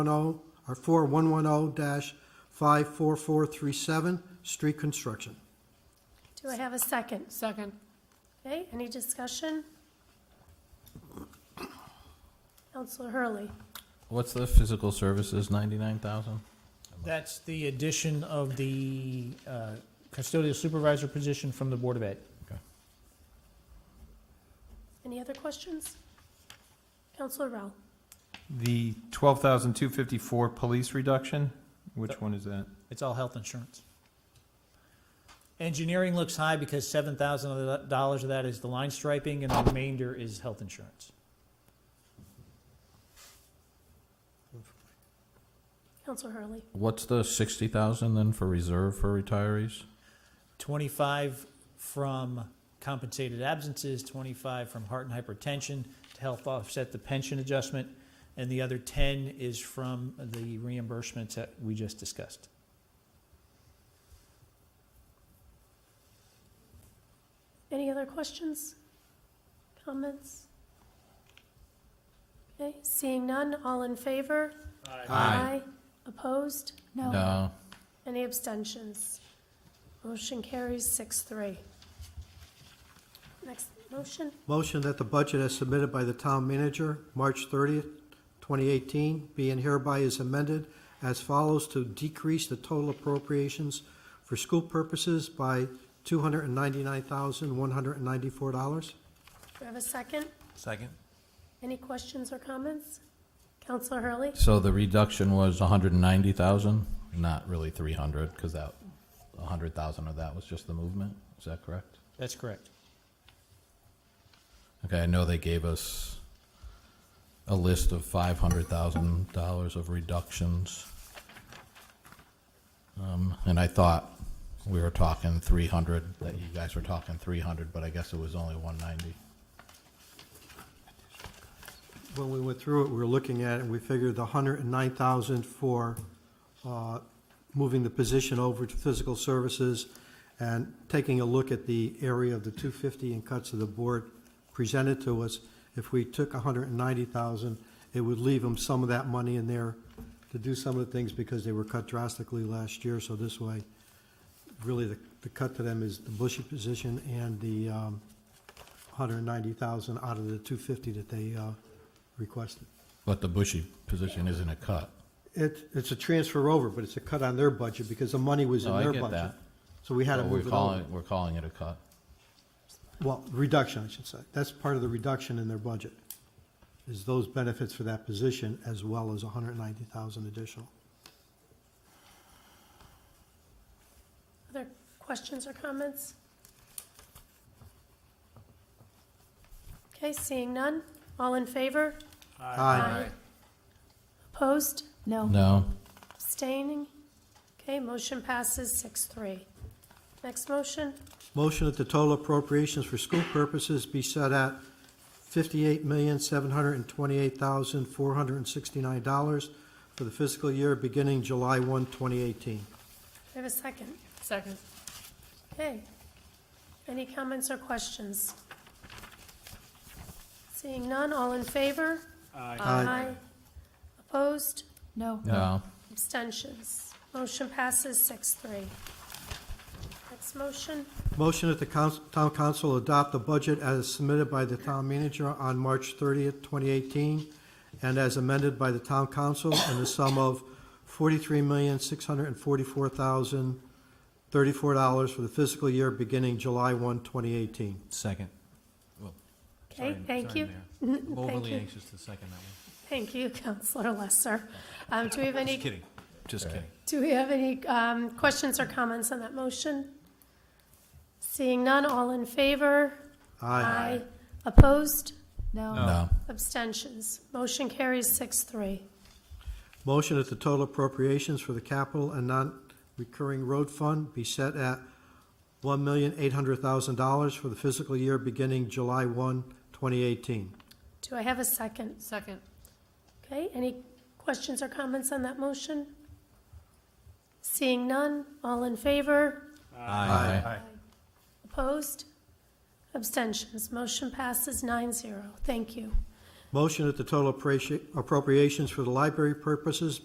10 or oh, 4110-54437, street construction. Do I have a second? Second. Okay, any discussion? Counselor Hurley, What's the physical services, ninety-nine thousand? That's the addition of the uh, custodial supervisor position from the Board of Ed. any other questions? Counselor Rowell, The twelve thousand two fifty-four police reduction, which one is that? It's all health insurance. Engineering looks high because seven thousand dollars of that is the line striping, and the remainder is health insurance. Counselor Hurley, What's the sixty thousand then for reserve for retirees? Twenty-five from compensated absences, twenty-five from heart and hypertension to help offset the pension adjustment, and the other ten is from the reimbursements that we just discussed. any other questions? Comments? Okay, seeing none, all in favor? Opposed? No, Any abstentions? Motion carries six three. Next motion, Motion that the budget as submitted by the town manager, March 30th, 2018, be and hereby is amended as follows to decrease the total appropriations for school purposes by $299,194. do I have a second? Second. Any questions or comments? Counselor Hurley? So the reduction was a hundred and ninety thousand, not really three hundred, because that, a hundred thousand of that was just the movement, is that correct? That's correct. Okay, I know they gave us a list of five hundred thousand dollars of reductions. Um, and I thought we were talking three hundred, that you guys were talking three hundred, but I guess it was only one ninety. When we went through it, we were looking at it, and we figured the hundred and nine thousand for, uh, moving the position over to physical services and taking a look at the area of the two fifty and cuts that the board presented to us, if we took hundred and ninety thousand, it would leave them some of that money in there to do some of the things because they were cut drastically last year, so this way, really, the, the cut to them is the Bushy position and the, um, hundred and ninety thousand out of the two fifty that they, uh, requested. But the bushy position isn't a cut. It, it's a transfer over, but it's a cut on their budget because the money was in No, Oh, I their get budget. that. So we had to But We're move it over. calling, we're calling it a cut. Well, reduction, I should say. That's part of the reduction in their budget, is those benefits for that position as well as hundred and ninety thousand additional. Other questions or comments? Okay, seeing none. All in favor? Aye. Opposed? No. No, Abstaining? Okay, motion passes six three. Next motion, Motion that the total appropriations for school purposes be set at fifty-eight million, seven hundred and twenty-eight thousand, four hundred and sixty-nine dollars for the fiscal year beginning July 1, 2018. Do I have a second. Second. Okay. Any comments or questions? Seeing none, all in favor? Aye. Opposed? No. no. Abstentions. Motion passes six three. Next motion, Motion that the council, town council adopt the budget as submitted by the town manager on March thirtieth, twenty eighteen, and as amended by the town council in the sum of forty-three million, six hundred and forty-four thousand, thirty-four dollars for the fiscal year beginning July 1, 2018. Second. okay, thank you. I'm overly you. anxious to second that one. Thank you, Counselor Lesser. Um, do we have any, kidding, just kidding. do we have any, um, questions or comments on that motion? Seeing none, all in favor? Opposed? No. No. Abstentions. Motion carries six three. Motion that the total appropriations for the capital and non-recurring road fund be set at one million, eight hundred thousand dollars for the fiscal year beginning July 1, 2018. Do I have a second? Second. Okay, any questions or comments on that motion? Seeing none, all in favor? Aye. Opposed? Abstentions. Motion passes nine zero. Thank you. Motion that the total appreci- appropriations for the library purposes